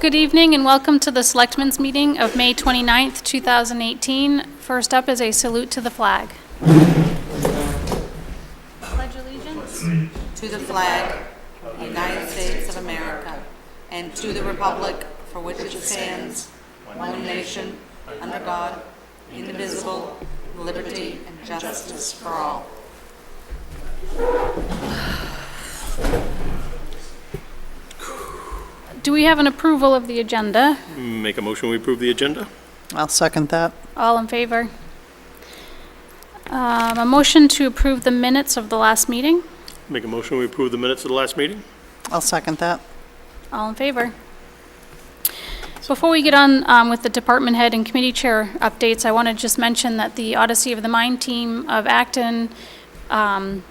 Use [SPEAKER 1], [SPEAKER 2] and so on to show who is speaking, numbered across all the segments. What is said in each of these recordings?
[SPEAKER 1] Good evening and welcome to the Selectmen's Meeting of May 29th, 2018. First up is a salute to the flag. Pledge allegiance.
[SPEAKER 2] To the flag, of the United States of America, and to the republic for which it stands, one nation, under God, indivisible, with liberty and justice for all.
[SPEAKER 1] Do we have an approval of the agenda?
[SPEAKER 3] Make a motion, we approve the agenda?
[SPEAKER 4] I'll second that.
[SPEAKER 1] All in favor? Um, A motion to approve the minutes of the last meeting?
[SPEAKER 3] Make a motion, we approve the minutes of the last meeting?
[SPEAKER 4] I'll second that.
[SPEAKER 1] All in favor? Before we get on um, with the department head and committee chair updates, I want to just mention that the Odyssey of the Mind team of Acton um,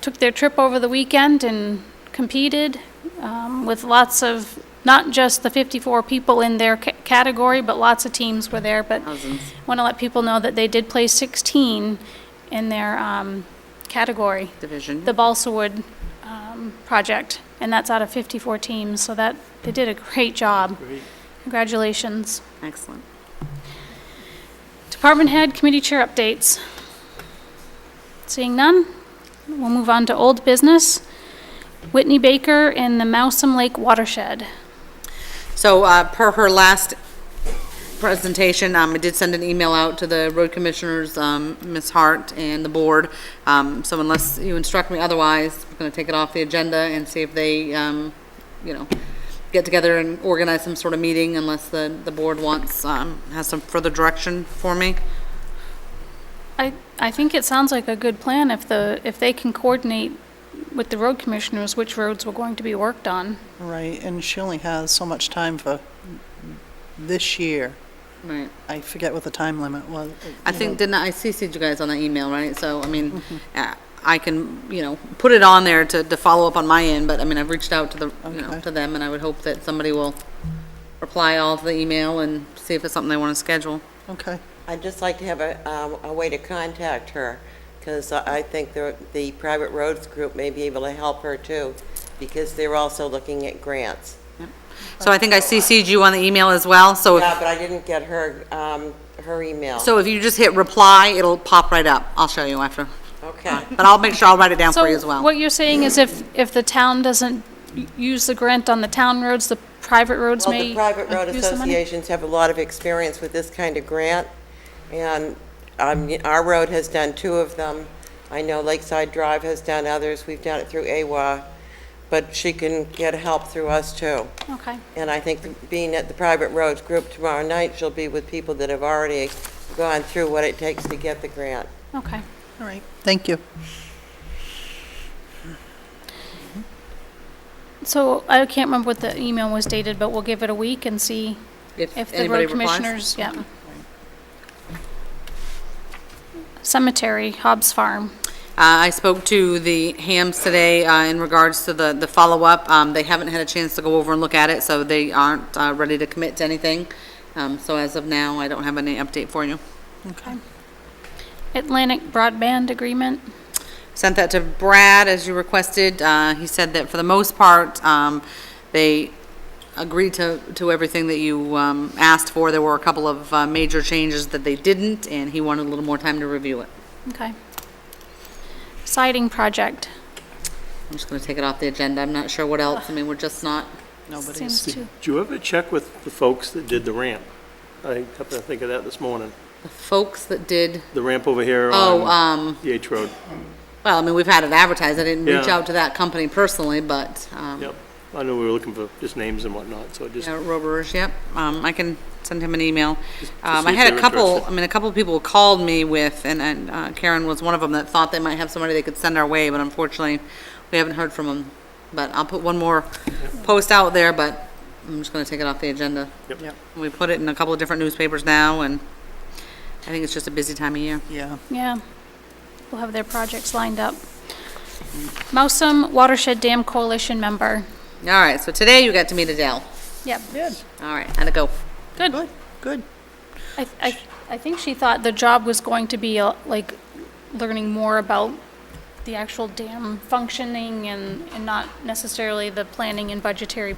[SPEAKER 1] took their trip over the weekend and competed um, with lots of, not just the 54 people in their ca- category, but lots of teams were there. But want to let people know that they did place 16 in their um, category
[SPEAKER 2] Division.
[SPEAKER 1] the balsa wood um, project, and that's out of 54 teams, so that, they did a great job. Congratulations.
[SPEAKER 2] Excellent.
[SPEAKER 1] Department head, committee chair updates. Seeing none, we'll move on to old business. Whitney Baker in the Mousom Lake watershed.
[SPEAKER 2] So uh, per her last presentation, um, I did send an email out to the road commissioners, um, Ms. Hart and the board. Um, So unless you instruct me otherwise, I'm going to take it off the agenda and see if they, um, you know, get together and organize some sort of meeting unless the, the board wants, um, has some further direction for me.
[SPEAKER 1] I, I think it sounds like a good plan if the, if they can coordinate with the road commissioners which roads were going to be worked on.
[SPEAKER 4] Right, and she only has so much time for this year.
[SPEAKER 2] Right.
[SPEAKER 4] I forget what the time limit was.
[SPEAKER 2] I think, didn't I, I CC'd you guys on that email, right? So, I mean, uh, I can, you know, put it on there to, to follow up on my end, but I mean, I've reached out to the, you know,
[SPEAKER 4] Okay.
[SPEAKER 2] to them, and I would hope that somebody will reply all to the email and see if it's something they want to schedule.
[SPEAKER 4] Okay,
[SPEAKER 5] I'd just like to have a, um, a way to contact her, because I I think the, the private roads group may be able to help her too, because they're also looking at grants.
[SPEAKER 2] So I think I CC'd you on the email as well, so,
[SPEAKER 5] Yeah,
[SPEAKER 2] if-
[SPEAKER 5] but I didn't get her, um, her email.
[SPEAKER 2] so if you just hit reply, it'll pop right up. I'll show you after.
[SPEAKER 5] Okay.
[SPEAKER 2] But I'll make sure I'll write it down for you as
[SPEAKER 1] So
[SPEAKER 2] well.
[SPEAKER 1] what you're saying is if, if the town doesn't u- use the grant on the town roads, the private roads
[SPEAKER 5] Well,
[SPEAKER 1] may
[SPEAKER 5] the private road
[SPEAKER 1] use the money?
[SPEAKER 5] associations have a lot of experience with this kind of grant, and um, our road has done two of them. I know Lakeside Drive has done others, we've done it through AWA, but she can get help through us too.
[SPEAKER 1] Okay,
[SPEAKER 5] And I think being at the private roads group tomorrow night, she'll be with people that have already gone through what it takes to get the grant.
[SPEAKER 1] okay.
[SPEAKER 4] all right, thank you.
[SPEAKER 1] So I can't remember what the email was dated, but we'll give it a week and see if the
[SPEAKER 2] anybody
[SPEAKER 1] road
[SPEAKER 2] replies.
[SPEAKER 1] commissioners, yeah. Cemetery, Hobbs Farm.
[SPEAKER 2] Uh, I spoke to the hams today uh, in regards to the, the follow-up. Um, They haven't had a chance to go over and look at it, so they aren't uh, ready to commit to anything. Um, So as of now, I don't have any update for you.
[SPEAKER 1] Atlantic Broadband Agreement.
[SPEAKER 2] Sent that to Brad as you requested. Uh, He said that for the most part, um, they agreed to, to everything that you um, asked for. There were a couple of uh, major changes that they didn't, and he wanted a little more time to review it.
[SPEAKER 1] Okay. Siding Project.
[SPEAKER 2] I'm just going to take it off the agenda. I'm not sure what else. I mean, we're just not,
[SPEAKER 4] Nobody's,
[SPEAKER 1] Seems
[SPEAKER 3] Did
[SPEAKER 1] to,
[SPEAKER 3] you ever check with the folks that did the ramp? I happened to think of that this morning.
[SPEAKER 2] the folks that did,
[SPEAKER 3] The ramp over here
[SPEAKER 2] oh,
[SPEAKER 3] on
[SPEAKER 2] um,
[SPEAKER 3] Yates Road.
[SPEAKER 2] Well, I mean, we've had it advertised. I didn't reach
[SPEAKER 3] Yeah.
[SPEAKER 2] out to that company personally, but, um,
[SPEAKER 3] Yep. I know we were looking for just names and whatnot, so I just,
[SPEAKER 2] yeah, Roberge, yep. Um, I can send him an email.
[SPEAKER 3] to
[SPEAKER 2] Um,
[SPEAKER 3] see
[SPEAKER 2] I
[SPEAKER 3] if
[SPEAKER 2] had a
[SPEAKER 3] they're
[SPEAKER 2] couple,
[SPEAKER 3] interested.
[SPEAKER 2] I mean, a couple people called me with, and, and uh, Karen was one of them that thought they might have somebody they could send our way, but unfortunately, we haven't heard from them. But I'll put one more post out there, but I'm just gonna take it off the agenda.
[SPEAKER 3] Yep.
[SPEAKER 4] Yep.
[SPEAKER 2] We put it in a couple of different newspapers now, and I think it's just a busy time of year.
[SPEAKER 4] yeah,
[SPEAKER 1] yeah. We'll have their projects lined up. Mousom Watershed Dam Coalition member.
[SPEAKER 2] All right, so today you got to meet Adele.
[SPEAKER 1] Yep,
[SPEAKER 4] good,
[SPEAKER 2] All right, how'd it go?
[SPEAKER 1] good.
[SPEAKER 4] good, good.
[SPEAKER 1] I, I, I think she thought the job was going to be uh, like learning more about the actual dam functioning and, and not necessarily the planning and budgetary